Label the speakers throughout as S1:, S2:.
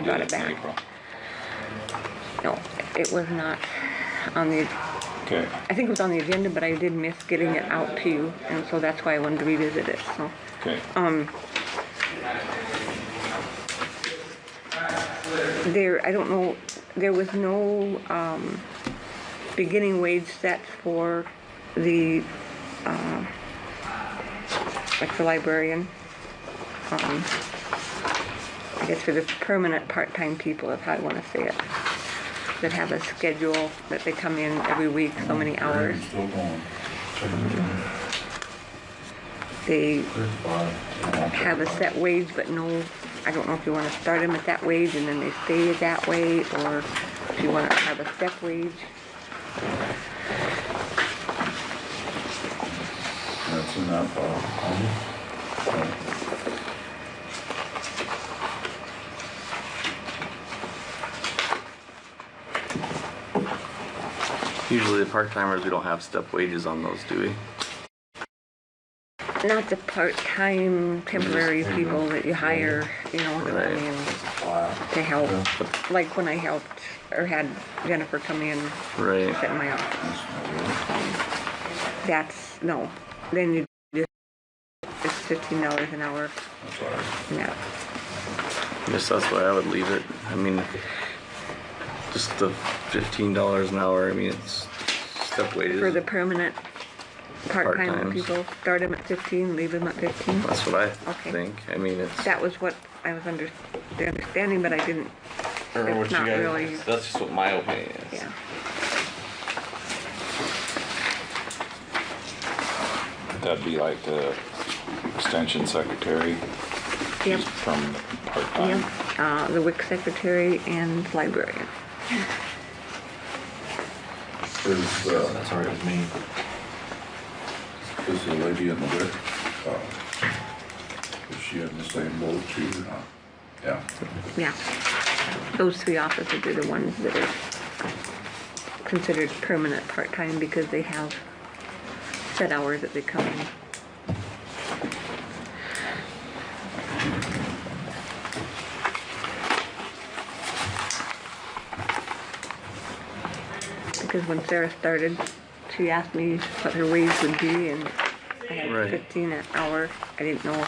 S1: I brought it back.
S2: April.
S1: No, it was not on the,
S2: Okay,
S1: I think it was on the agenda, but I did miss getting it out to you, and so that's why I wanted to revisit it, so.
S2: okay.
S1: There, I don't know, there was no, um, beginning wage set for the, uh, like the librarian. Um, I guess for the permanent part-time people, if I wanna say it, that have a schedule, that they come in every week, so many hours.
S3: Still going.
S1: They
S3: There's Bob.
S1: have a set wage, but no, I don't know if you wanna start them at that wage and then they stay that way, or if you wanna have a step wage.
S3: That's enough, Bob.
S4: Usually the part timers, we don't have step wages on those, do we?
S1: Not the part-time temporary people that you hire, you know, to come
S4: Right.
S1: in to help. Like when I helped, or had Jennifer come in
S4: Right.
S1: at my office,
S3: That's not
S1: that's, no, then you just, it's fifteen dollars an hour,
S3: good. Sorry.
S1: and that,
S4: Guess that's why I would leave it. I mean, just the fifteen dollars an hour, I mean, it's step wages.
S1: for the permanent part-time
S4: Part-times.
S1: people, start them at fifteen, leave them at fifteen.
S4: That's what I
S1: Okay.
S4: think. I mean, it's,
S1: That was what I was under, the understanding, but I didn't,
S5: Or what
S1: it's
S5: you
S1: not
S5: guys-
S1: really,
S4: that's just what my opinion is.
S1: yeah.
S2: That'd be like the extension secretary.
S1: Yep.
S2: She's From part-time.
S1: Yeah, uh, the WIC secretary and librarian.
S3: Is, uh,
S5: That's all right with me.
S3: is the lady in the wick, uh, is she in the same boat too or not? Yeah.
S1: Yeah. Those three offices are the ones that are considered permanent part-time because they have set hours that they come in. Because when Sarah started, she asked me what her wage would be and I had
S4: Right.
S1: fifteen an hour. I didn't know.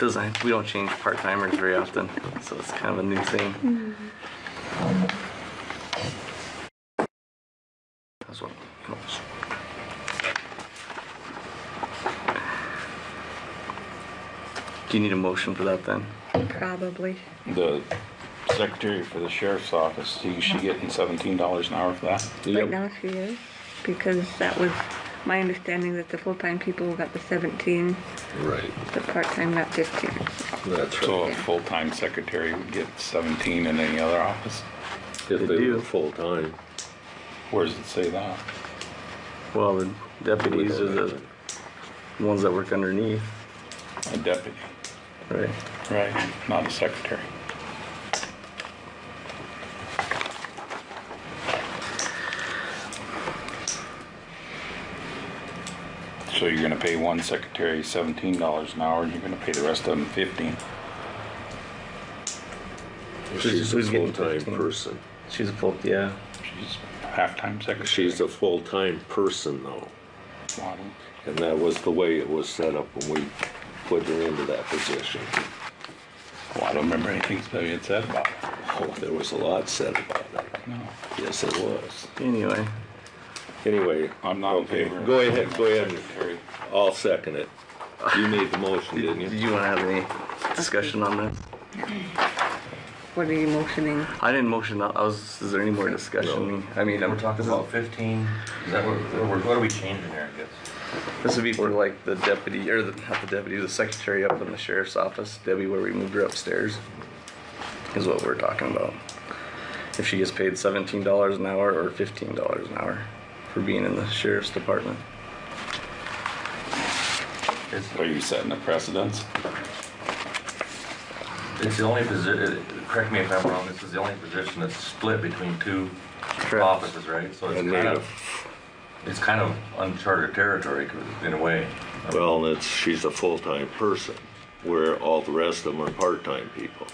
S4: Doesn't, we don't change part timers very often, so it's kind of a new thing. That's what. Do you need a motion for that then?
S1: Probably.
S2: The secretary for the sheriff's office, she, she getting seventeen dollars an hour for that?
S1: Right now she is, because that was my understanding that the full-time people got the seventeen,
S6: Right,
S1: the part-time got fifteen.
S6: that's right.
S2: So a full-time secretary would get seventeen in any other office?
S6: If
S4: They
S6: they
S4: do.
S6: were full-time.
S2: Where does it say that?
S4: Well, the deputies are
S6: we don't
S4: the
S6: have
S4: ones that work underneath,
S2: A deputy,
S4: right?
S2: right, not a secretary. So you're gonna pay one secretary seventeen dollars an hour, and you're gonna pay the rest of them fifteen?
S6: it. She's a
S4: Who's getting
S6: full-time
S4: 15?
S6: person.
S4: She's a full, yeah.
S2: She's half-time secretary.
S6: She's a full-time person though.
S2: model.
S6: And that was the way it was set up when we put her into that position.
S2: Well, I don't remember anything Stevie had said about it.
S6: Oh, there was a lot said about it.
S2: No.
S6: Yes, it was.
S4: Anyway,
S6: Anyway,
S2: I'm not in
S6: okay,
S2: favor.
S6: go ahead, go ahead.
S2: Secretary.
S6: I'll second it. You made the motion, didn't
S4: did
S6: you?
S4: you wanna have any discussion on this?
S1: What are you motioning?
S4: I didn't motion, I was, is there any more discussion? I mean, I'm
S5: We're talking about fifteen, is that what, what what are we changing there, I guess?
S4: This would be for like the deputy, or the, not the deputy, the secretary up in the sheriff's office, Debbie, where we moved her upstairs, is what we're talking about. If she gets paid seventeen dollars an hour or fifteen dollars an hour for being in the sheriff's department.
S2: Are you setting a precedence?
S5: It's the only position, correct me if I'm wrong, this is the only position that's split between two
S4: Correct.
S5: offices, right? So it's
S6: And
S5: kind
S6: then,
S5: of, it's kind of uncharted territory 'cause in a way.
S6: well, it's, she's a full-time person. where all the rest of them are part-time people.